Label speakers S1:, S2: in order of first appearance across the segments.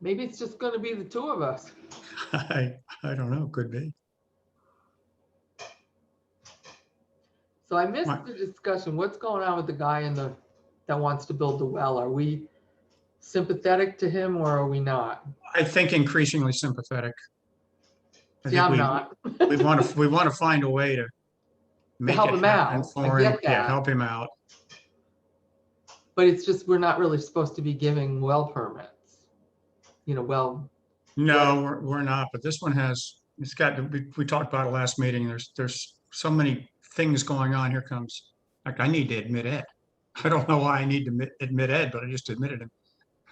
S1: Maybe it's just gonna be the two of us.
S2: I, I don't know, could be.
S1: So I missed
S2: Right.
S1: the discussion. What's going on with the guy in the, that wants to build the well? Are we sympathetic to him or are we not?
S2: I think increasingly sympathetic. I think
S1: Yeah, I'm
S2: we-
S1: not.
S2: We want to, we want to find a way to. make
S1: help
S2: it
S1: him
S2: happen
S1: out. I
S2: for him.
S1: get
S2: Yeah,
S1: that.
S2: help him out.
S1: But it's just, we're not really supposed to be giving well permits. You know, well,
S2: No, we're, we're not, but this one has, it's got, to- we, we talked about it last meeting, there's, there's so many things going on, here comes, like, I need to admit Ed. I don't know why I need to admit, admit Ed, but I just admitted him,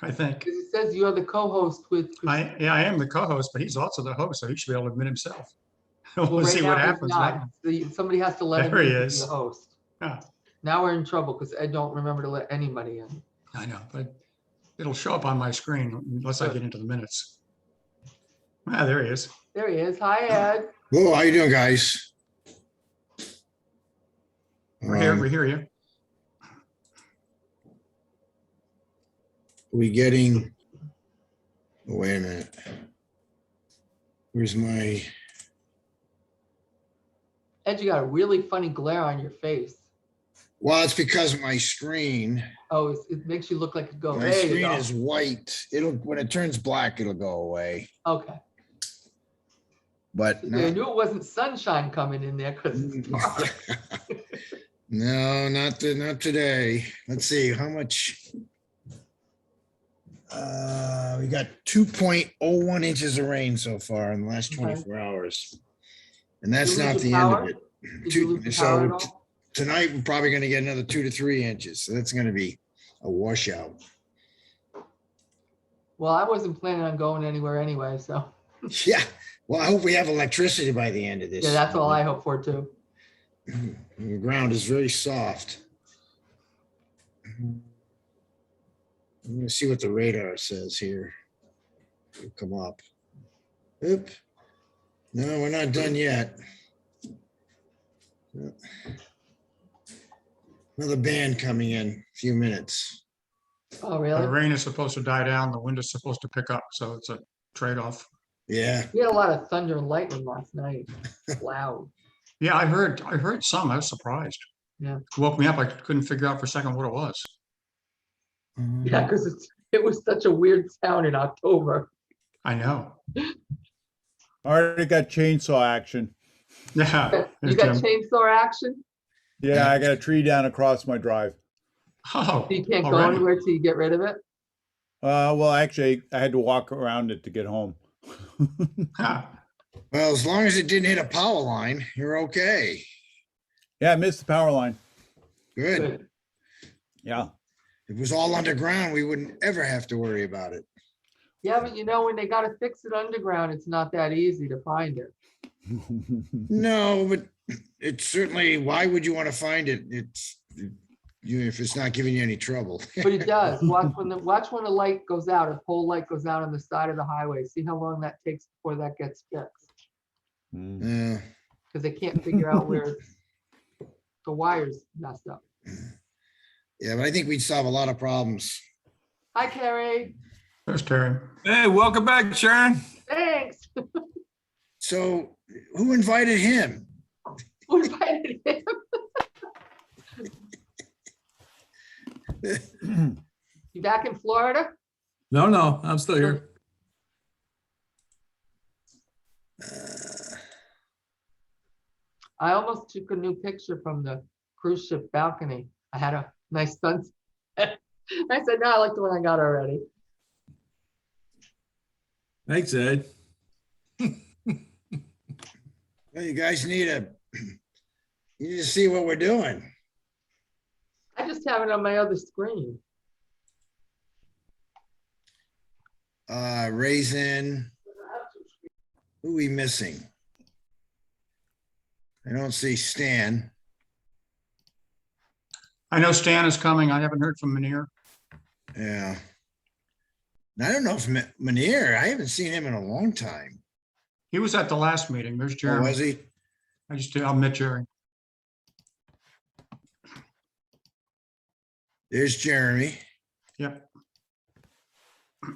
S2: I think.
S1: because it says you're the co-host with. Chris-
S2: I, yeah, I am the co-host, but he's also the host, so he should be able to admit himself.
S1: Well,
S2: We'll
S1: right
S2: see
S1: now
S2: what
S1: he's
S2: happens.
S1: not.
S2: right?
S1: The- Somebody has to let him
S2: There he
S1: in to be
S2: is.
S1: the host.
S2: Yeah.
S1: Now we're in trouble because Ed don't remember to let anybody in.
S2: I know, but it'll show up on my screen unless I
S1: Good.
S2: get into the minutes. Ah, there he is.
S1: There he is. Hi, Ed.
S3: Whoa, how you doing, guys?
S2: We're here,
S3: Um,
S2: we hear you.
S3: We getting, oh, wait a minute. Where's my,
S1: Ed, you got a really funny glare on your face.
S3: well, it's because my screen,
S1: Oh, it's- it makes you look like a ghost.
S3: my
S1: Oh, There you
S3: screen
S1: go.
S3: is white. It'll, when it turns black, it'll go away,
S1: Okay.
S3: but
S1: I
S3: no.
S1: knew it wasn't sunshine coming in there because it's dark.
S3: No, not, to- not today. Let's see, how much? Uh, we got two point oh one inches of rain so far in the last
S1: Okay.
S3: twenty-four hours. And
S1: Did
S3: that's
S1: you
S3: not
S1: lose
S3: the
S1: your
S3: end
S1: power?
S3: of it.
S1: Did
S3: Two-
S1: you lose the
S3: so
S1: power at all?
S3: tonight we're probably gonna get another two to three inches, so that's gonna be a washout.
S1: Well, I wasn't planning on going anywhere anyway, so
S3: Yeah, well, I hope we have electricity by the end of this.
S1: yeah, that's all I hope for too.
S3: The ground is very soft. I'm gonna see what the radar says here. It'll Come up. Oop. No, we're not done yet. Another band coming in, a few minutes.
S1: Oh,
S2: The
S1: really?
S2: rain is supposed to die down, the wind is supposed to pick up, so it's a trade-off.
S3: Yeah,
S1: We had a lot of thunder and lightning last night. Loud.
S2: Yeah, I heard, I heard some, I was surprised.
S1: Yeah.
S2: Woke me up, I couldn't figure out for a second what it was.
S1: Yeah, because it's, it was such a weird sound in October.
S2: I know,
S4: Already got chainsaw action.
S2: yeah.
S1: You got
S3: um,
S1: chainsaw action?
S4: Yeah, I got a tree down across my drive.
S2: Oh,
S1: You can't go
S2: already?
S1: anywhere till you get rid of it?
S4: Uh, well, actually, I had to walk around it to get home.
S2: huh.
S3: well, as long as it didn't hit a power line, you're okay.
S4: yeah, I missed the power line.
S3: Good.
S1: Good.
S4: Yeah.
S3: If it was all underground, we wouldn't ever have to worry about it.
S1: Yeah, but you know, when they gotta fix it underground, it's not that easy to find it.
S3: No, but it's certainly, why would you want to find it? It's, you, if it's not giving you any trouble.
S1: But it does. Watch when the, watch when the light goes out, if pole light goes out on the side of the highway, see how long that takes before that gets fixed.
S4: Mm.
S3: Yeah.
S1: Because they can't figure out where it's- the wires messed up.
S3: Yeah, but I think we'd solve a lot of problems.
S1: Hi, Carrie.
S2: There's Terry.
S5: Hey, welcome back, Sharon.
S1: Thanks.
S3: So who invited him?
S1: What if I did it? You back in Florida?
S5: No, no, I'm still here.
S1: I almost took a new picture from the cruise ship balcony. I had a nice sunset. I said, no, I like the one I got already.
S5: Thanks, Ed.
S3: Well, You guys need a, you need to see what we're doing.
S1: I just have it on my other screen.
S3: Uh, Raisin. Who we missing? I don't see Stan.
S2: I know Stan is coming, I haven't heard from Manir.
S3: Yeah. And I don't know if Ma- Manier, I haven't seen him in a long time.
S2: He was at the last meeting, there's
S3: Or
S2: Jeremy.
S3: was he?
S2: I just, I'll admit Jerry.
S3: There's Jeremy.
S2: Yep.